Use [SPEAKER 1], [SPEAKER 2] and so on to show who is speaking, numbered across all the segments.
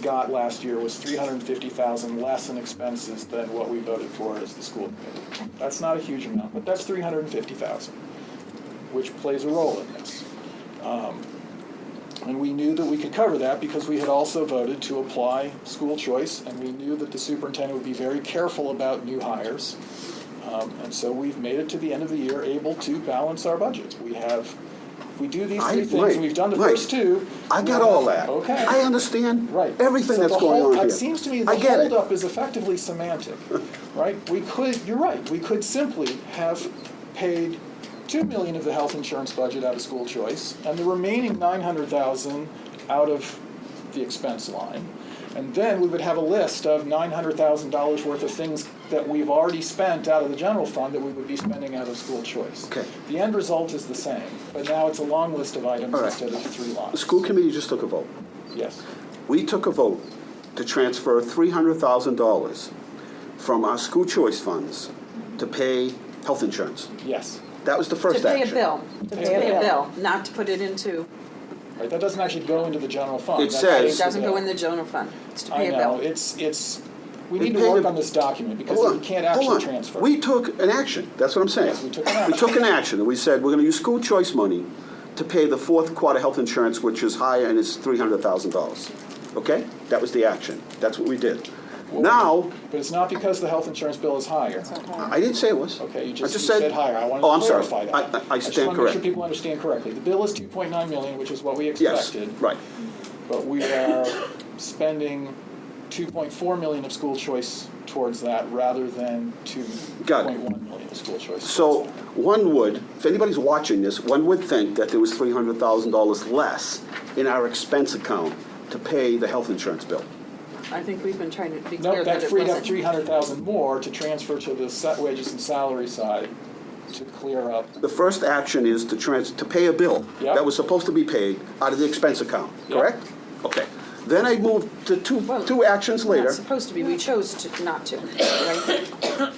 [SPEAKER 1] got last year was three hundred and fifty thousand less in expenses than what we voted for as the school committee. That's not a huge amount, but that's three hundred and fifty thousand, which plays a role in this. Um, And we knew that we could cover that because we had also voted to apply school choice, and we knew that the superintendent would be very careful about new hires. Um, And so we've made it to the end of the year able to balance our budget. We have, we do these
[SPEAKER 2] I-
[SPEAKER 1] three things,
[SPEAKER 2] right,
[SPEAKER 1] and we've done the
[SPEAKER 2] right.
[SPEAKER 1] first two.
[SPEAKER 2] I got all that.
[SPEAKER 1] Okay.
[SPEAKER 2] I understand
[SPEAKER 1] Right.
[SPEAKER 2] everything
[SPEAKER 1] So
[SPEAKER 2] that's
[SPEAKER 1] the
[SPEAKER 2] going
[SPEAKER 1] hold-
[SPEAKER 2] on here.
[SPEAKER 1] It seems to me the
[SPEAKER 2] I get it.
[SPEAKER 1] holdup is effectively semantic, right? We could, you're right, we could simply have paid two million of the health insurance budget out of school choice and the remaining nine hundred thousand out of the expense line. And then we would have a list of nine hundred thousand dollars worth of things that we've already spent out of the general fund that we would be spending out of school choice.
[SPEAKER 2] Okay.
[SPEAKER 1] The end result is the same, but now it's a long list of items
[SPEAKER 2] All right.
[SPEAKER 1] instead of three
[SPEAKER 2] The
[SPEAKER 1] lines.
[SPEAKER 2] school committee just took a vote.
[SPEAKER 1] Yes.
[SPEAKER 2] We took a vote to transfer $300,000 from our school choice funds to pay health insurance.
[SPEAKER 1] Yes.
[SPEAKER 2] That was the first
[SPEAKER 3] To pay
[SPEAKER 2] action.
[SPEAKER 3] a bill, to
[SPEAKER 1] Pay a
[SPEAKER 3] pay a
[SPEAKER 1] bill.
[SPEAKER 3] bill, not to put it into,
[SPEAKER 1] Right, that doesn't actually go into the general fund.
[SPEAKER 2] It
[SPEAKER 1] That
[SPEAKER 2] says-
[SPEAKER 1] pays
[SPEAKER 3] it doesn't
[SPEAKER 1] the
[SPEAKER 3] go
[SPEAKER 1] bill.
[SPEAKER 3] in the general fund, it's to
[SPEAKER 1] I
[SPEAKER 3] pay a
[SPEAKER 1] know,
[SPEAKER 3] bill.
[SPEAKER 1] it's, it's, we
[SPEAKER 2] It
[SPEAKER 1] need
[SPEAKER 2] paid
[SPEAKER 1] to work
[SPEAKER 2] a-
[SPEAKER 1] on this document because
[SPEAKER 2] Hold
[SPEAKER 1] we
[SPEAKER 2] on,
[SPEAKER 1] can't
[SPEAKER 2] hold
[SPEAKER 1] actually
[SPEAKER 2] on.
[SPEAKER 1] transfer.
[SPEAKER 2] We took an action, that's what I'm saying.
[SPEAKER 1] Yes, we took an action.
[SPEAKER 2] We took an action, and we said, we're gonna use school choice money to pay the fourth quarter health insurance, which is higher, and it's three hundred thousand dollars. Okay? That was the action, that's what we did. Now,
[SPEAKER 1] But it's not because the health insurance bill is higher.
[SPEAKER 2] I didn't say it was.
[SPEAKER 1] Okay, you
[SPEAKER 2] I
[SPEAKER 1] just, you
[SPEAKER 2] said-
[SPEAKER 1] said higher. I wanted
[SPEAKER 2] Oh, I'm
[SPEAKER 1] to
[SPEAKER 2] sorry.
[SPEAKER 1] clarify that.
[SPEAKER 2] I- I- I
[SPEAKER 1] just
[SPEAKER 2] stand
[SPEAKER 1] want to make
[SPEAKER 2] corrected.
[SPEAKER 1] sure people understand correctly. The bill is two point nine million, which is what we
[SPEAKER 2] Yes,
[SPEAKER 1] expected.
[SPEAKER 2] right,
[SPEAKER 1] But we are spending two point four million of school choice towards that rather than two
[SPEAKER 2] Got it.
[SPEAKER 1] point one million of school choice.
[SPEAKER 2] so
[SPEAKER 1] towards that.
[SPEAKER 2] one would, if anybody's watching this, one would think that there was three hundred thousand dollars less in our expense account to pay the health insurance bill.
[SPEAKER 3] I think we've been trying to be
[SPEAKER 1] No,
[SPEAKER 3] clear that
[SPEAKER 1] that
[SPEAKER 3] it
[SPEAKER 1] freed up
[SPEAKER 3] wasn't.
[SPEAKER 1] three hundred thousand more to transfer to the set wages and salary side to clear up.
[SPEAKER 2] The first action is to trans, to pay a bill
[SPEAKER 1] Yep.
[SPEAKER 2] that was supposed to be paid out of the expense account,
[SPEAKER 1] Yep.
[SPEAKER 2] correct? Okay. Then I moved to two,
[SPEAKER 3] Well,
[SPEAKER 2] two actions later.
[SPEAKER 3] Not supposed to be, we chose to, not to, right?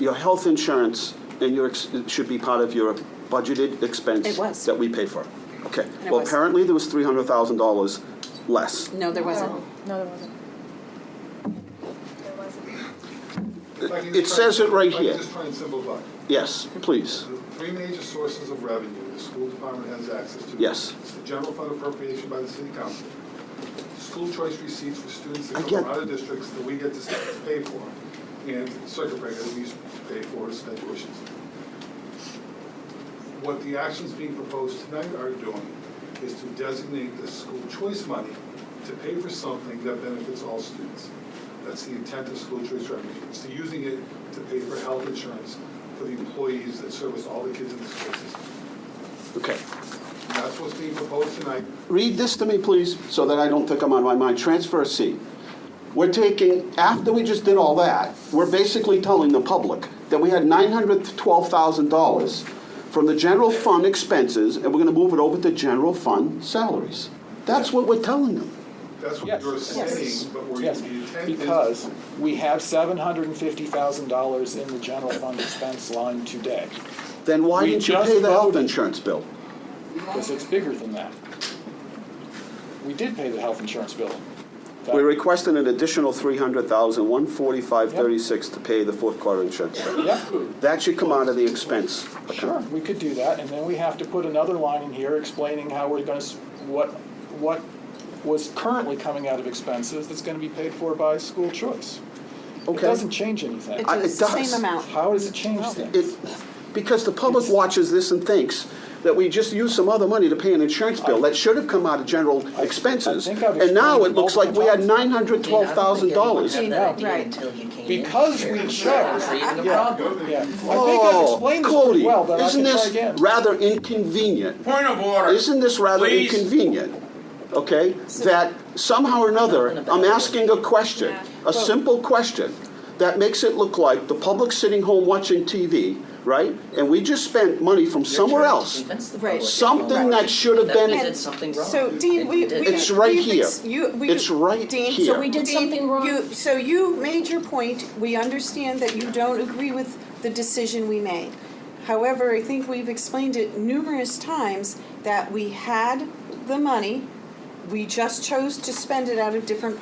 [SPEAKER 2] Your health insurance and your, ex- it should be part of your budgeted expense.
[SPEAKER 3] It was.
[SPEAKER 2] That we pay for. Okay.
[SPEAKER 3] it
[SPEAKER 2] Well,
[SPEAKER 3] was.
[SPEAKER 2] apparently there was three hundred thousand dollars less.
[SPEAKER 3] No, there wasn't.
[SPEAKER 4] No, there wasn't.
[SPEAKER 5] If I can
[SPEAKER 2] It
[SPEAKER 5] just
[SPEAKER 2] says
[SPEAKER 5] try-
[SPEAKER 2] it right
[SPEAKER 5] if I can
[SPEAKER 2] here.
[SPEAKER 5] just try and simplify.
[SPEAKER 2] Yes, please.
[SPEAKER 5] The three major sources of revenue the school department has access to.
[SPEAKER 2] Yes.
[SPEAKER 5] It's the general fund appropriation by the city council, school choice receipts for students
[SPEAKER 2] I
[SPEAKER 5] that come
[SPEAKER 2] get-
[SPEAKER 5] from out of districts that we get to s- to pay for, and circuit breaker that we used to pay for as sped tuitions. What the actions being proposed tonight are doing is to designate the school choice money to pay for something that benefits all students. That's the intent of school choice revenue, it's to using it to pay for health insurance for the employees that service all the kids in the school system.
[SPEAKER 2] Okay.
[SPEAKER 5] And that's what's being proposed tonight,
[SPEAKER 2] Read this to me, please, so that I don't think I'm on my mind. Transfer C. We're taking, after we just did all that, we're basically telling the public that we had $912,000 from the general fund expenses, and we're gonna move it over to general fund salaries. That's what we're telling them.
[SPEAKER 5] that's what
[SPEAKER 1] Yes.
[SPEAKER 5] you're
[SPEAKER 1] Yes.
[SPEAKER 5] saying, but where
[SPEAKER 1] Yes,
[SPEAKER 5] the intent is.
[SPEAKER 1] because we have seven hundred and fifty thousand dollars in the general fund expense line today,
[SPEAKER 2] Then why
[SPEAKER 1] We
[SPEAKER 2] didn't you
[SPEAKER 1] just
[SPEAKER 2] pay the health
[SPEAKER 1] voted.
[SPEAKER 2] insurance bill?
[SPEAKER 1] because it's bigger than that. We did pay the health insurance bill. That-
[SPEAKER 2] We're requesting an additional $300,145.36 to pay the fourth quarter insurance bill.
[SPEAKER 1] Yep.
[SPEAKER 2] That should come out of the expense
[SPEAKER 1] Sure,
[SPEAKER 2] account.
[SPEAKER 1] we could do that, and then we have to put another line in here explaining how we're gonna, s- what, what was currently coming out of expenses that's gonna be paid for by school choice. It
[SPEAKER 2] Okay.
[SPEAKER 1] doesn't change anything.
[SPEAKER 2] I-
[SPEAKER 3] It's
[SPEAKER 2] it
[SPEAKER 3] the
[SPEAKER 2] does.
[SPEAKER 3] same amount.
[SPEAKER 1] How does it change things?
[SPEAKER 2] It, because the public watches this and thinks that we just used some other money to pay an insurance bill that should have come out of general expenses.
[SPEAKER 1] I think I've
[SPEAKER 2] And now it
[SPEAKER 1] explained
[SPEAKER 2] looks like we had nine hundred
[SPEAKER 6] You know, I
[SPEAKER 2] twelve
[SPEAKER 6] don't
[SPEAKER 2] thousand
[SPEAKER 6] think anyone
[SPEAKER 2] dollars.
[SPEAKER 6] had
[SPEAKER 1] No.
[SPEAKER 6] that idea
[SPEAKER 3] Right.
[SPEAKER 6] until you came in
[SPEAKER 1] Because
[SPEAKER 6] here.
[SPEAKER 1] we
[SPEAKER 6] That's
[SPEAKER 1] chose-
[SPEAKER 6] even the
[SPEAKER 1] yeah.
[SPEAKER 6] problem.
[SPEAKER 1] Yeah, I think I've
[SPEAKER 2] Oh,
[SPEAKER 1] explained this pretty
[SPEAKER 2] Cody,
[SPEAKER 1] well, but I
[SPEAKER 2] isn't
[SPEAKER 1] can try
[SPEAKER 2] this
[SPEAKER 1] again.
[SPEAKER 2] rather inconvenient?
[SPEAKER 7] Point of order.
[SPEAKER 2] Isn't this rather
[SPEAKER 7] Please.
[SPEAKER 2] inconvenient? Okay, that somehow or another, I'm asking a question, a simple question, that makes it look like the public's sitting home watching TV, right? And we just spent money from somewhere else,
[SPEAKER 6] Convince the
[SPEAKER 3] Right.
[SPEAKER 6] public.
[SPEAKER 2] something that should have
[SPEAKER 6] That we
[SPEAKER 2] been
[SPEAKER 6] did something wrong.
[SPEAKER 4] So Dean, we, we.
[SPEAKER 2] It's right
[SPEAKER 4] we've ex-
[SPEAKER 2] here.
[SPEAKER 4] You, we.
[SPEAKER 2] It's right
[SPEAKER 4] Dean,
[SPEAKER 2] here. So we
[SPEAKER 8] did
[SPEAKER 4] Dean,
[SPEAKER 8] something wrong?
[SPEAKER 4] you- So you made your point, we understand that you don't agree with the decision we made. However, I think we've explained it numerous times that we had the money, we just chose to spend it out of different